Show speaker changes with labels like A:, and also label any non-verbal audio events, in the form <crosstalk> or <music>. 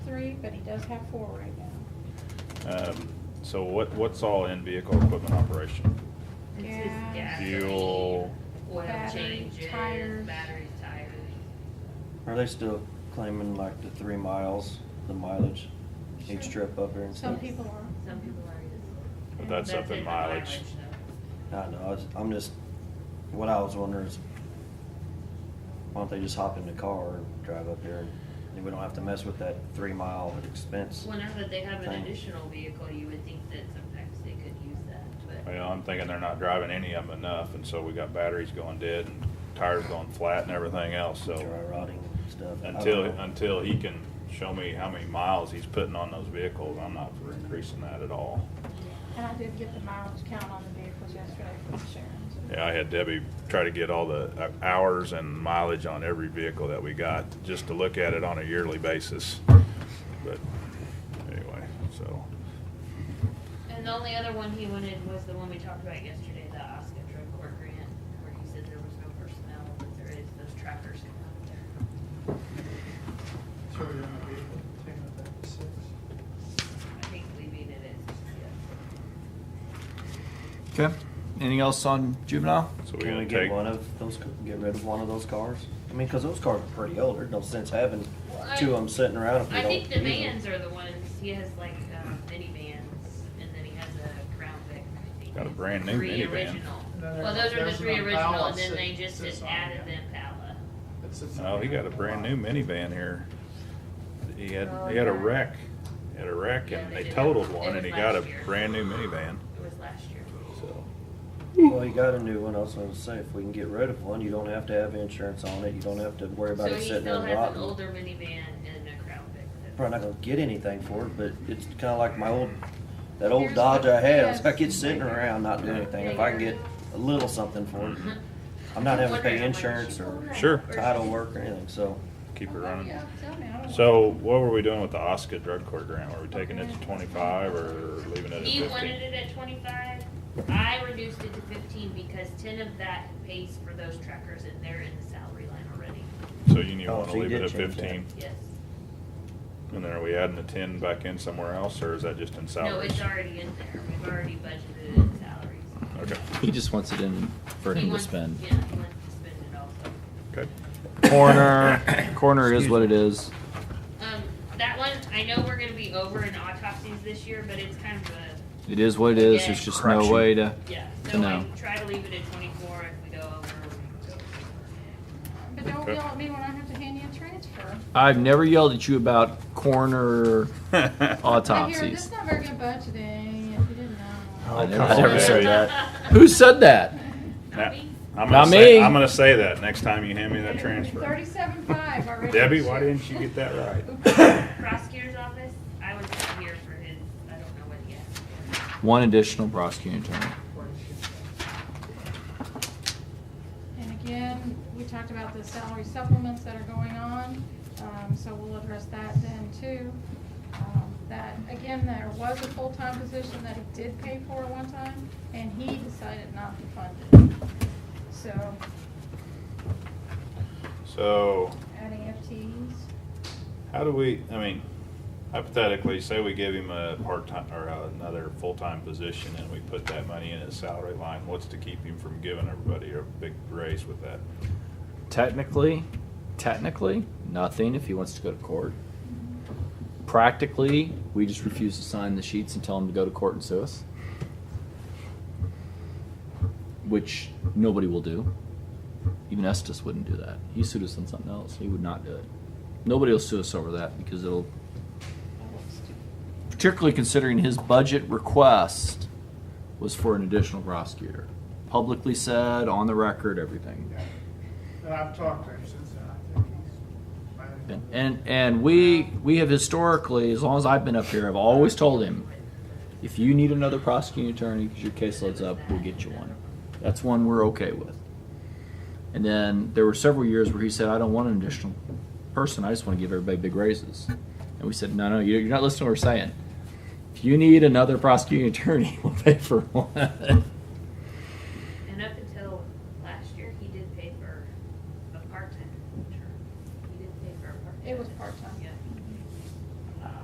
A: three, but he does have four right now.
B: Um, So what, what's all in vehicle equipment operation?
C: It's just
A: Gas,
C: gasoline,
B: Fuel.
C: Oil
A: battery,
C: changes,
A: tires.
C: batteries, tires.
D: Are they still claiming like the three miles, the mileage each
A: Sure.
D: trip up here and
A: Some
D: stuff?
A: people are.
C: Some people are just.
B: But that's up in
C: the
B: mileage.
D: I don't know, I was, I'm just, what I was wondering is, why don't they just hop in the car and drive up here? And we don't have to mess with that three mile
C: though.
D: expense.
C: Well, now that they have an
D: Thing.
C: additional vehicle, you would think that sometimes they could use that, but.
B: Well, I'm thinking they're not driving any of them enough, and so we got batteries going dead and tires going flat and everything else, so.
D: Dry rotting and stuff. I don't
B: Until,
D: know.
B: until he can show me how many miles he's putting on those vehicles, I'm not for increasing that at all.
A: And I did get the mileage count on the vehicles yesterday from Sharon. so-
B: Yeah, I had Debbie try to get all the uh, hours and mileage on every vehicle that we got, just to look at it on a yearly basis. But, anyway, so,
C: And the only other one he wanted was the one we talked about yesterday, the Oscar Drug Court Grant, where he said there was no personnel, but there is, those trackers come out there.
E: So we're gonna be able to take it back to six.
C: I think leaving it as, yeah.
F: Okay. Anything else on juvenile?
B: so we
D: Can we
B: gonna
D: get
B: take,
D: one of those, get rid of one of those cars? I mean, cause those cars are pretty old, there's no sense having two of them sitting around if we
C: I
D: don't
C: think the
D: use 'em.
C: vans are the ones, he has like uh, minivans, and then he has a Crown Vic, I think.
B: Got a brand new
C: Three
B: minivan.
C: original.
E: No, no,
C: Well, those are the
E: there's an
C: three original,
E: Impala
C: and then they
E: sit-
C: just
E: sits
C: just
E: on
C: added the
E: there.
C: Impala.
E: It sits
B: oh,
E: on
B: he
E: the
B: got a brand new minivan here. He had,
C: Oh,
B: he had a
C: yeah.
B: wreck, he had a wreck
C: Yeah,
B: and
C: they
B: they
C: did that.
B: totaled
C: It
B: one
C: was
B: and he got a
C: last year.
B: brand new minivan,
C: It was last year.
B: so.
D: Well, you got a new one, I was gonna say, if we can get rid of one, you don't have to have insurance on it, you don't have to worry about
C: So
D: it
C: he
D: sitting in
C: still
D: the
C: has
D: lot.
C: an older minivan and a Crown Vic. that's-
D: Probably not gonna get anything for it, but it's kinda like my old, that old
A: Here's
D: Dodge
A: what-
D: <laughs> I had, it's
A: yes.
D: like it's sitting around not doing anything, if I can get a little something for it. I'm not having to pay insurance or
B: Sure.
D: title work or anything, so,
B: Keep it
A: Oh,
B: running.
A: yeah, tell me, I don't know.
B: So what were we doing with the Oscar drug court grant? Were we taking it to twenty-five or leaving it at
C: He wanted
B: fifteen?
C: it at twenty-five, I reduced it to fifteen because ten of that pays for those trackers, and they're in the salary line already,
B: So you need
D: Oh,
B: want to
D: so you
B: leave it
D: did
B: at
D: change that.
B: fifteen?
C: yes.
B: And then are we adding the ten back in somewhere else, or is that just in
C: No,
B: salaries?
C: it's already in there, we've already budgeted it in salaries.
B: Okay,
F: He just wants it in for
C: He
F: him to
C: wants-
F: spend.
C: Yeah, he wants to spend it also.
F: <laughs>
B: good.
F: Corner, corner is what it is.
C: Um, that one, I know we're gonna be over in autopsies this year, but it's kind of a,
F: It is what it is. There's just no way to.
C: yeah, so I
F: No.
C: try to leave it at twenty-four, if we go over, we go over.
A: But don't yell at me when I have to hand you a transfer.
F: I've never yelled at you about corner
A: Now, here, this is
F: autopsies.
A: not very good budgeting, if you didn't know.
F: I never,
D: come
F: I never
D: on,
F: said
C: <laughs>
D: man.
F: that. Who said that?
B: Now,
C: Copy?
B: I'm
F: Not
B: gonna say,
F: me.
B: I'm gonna say that next time you hand me that transfer.
A: Thirty-seven
B: <laughs>
A: five already.
B: Debbie, why didn't you get that
A: <laughs>
B: right?
C: Prosecutor's office, I was not here for his, I don't know what he asked.
F: One additional prosecuting attorney.
A: And again, we talked about the salary supplements that are going on, um, so we'll address that then too. Um, That, again, there was a full-time position that he did pay for at one time, and he decided not to fund it. So,
B: So,
A: adding FTEs,
B: how do we, I mean, hypothetically, say we give him a part-time, or another full-time position, and we put that money in his salary line, what's to keep him from giving everybody a big raise with that?
F: Technically, technically, nothing if he wants to go to court. Practically, we just refuse to sign the sheets and tell him to go to court and sue us. Which nobody will do. Even Estes wouldn't do that. He sued us on something else. He would not do it. Nobody will sue us over that because it'll, particularly considering his budget request was for an additional prosecutor. Publicly said, on the record, everything.
E: And I've talked to him since then, I think he's. I think-
F: And and we we have historically, as long as I've been up here, I've always told him, if you need another prosecuting attorney because your caseload's up, we'll get you one. That's one we're okay with. And then there were several years where he said, I don't want an additional person. I just want to give everybody big raises. And we said, No, no, <laughs> you- you're not listening to what we're saying. If you need another prosecuting attorney, we'll pay for one.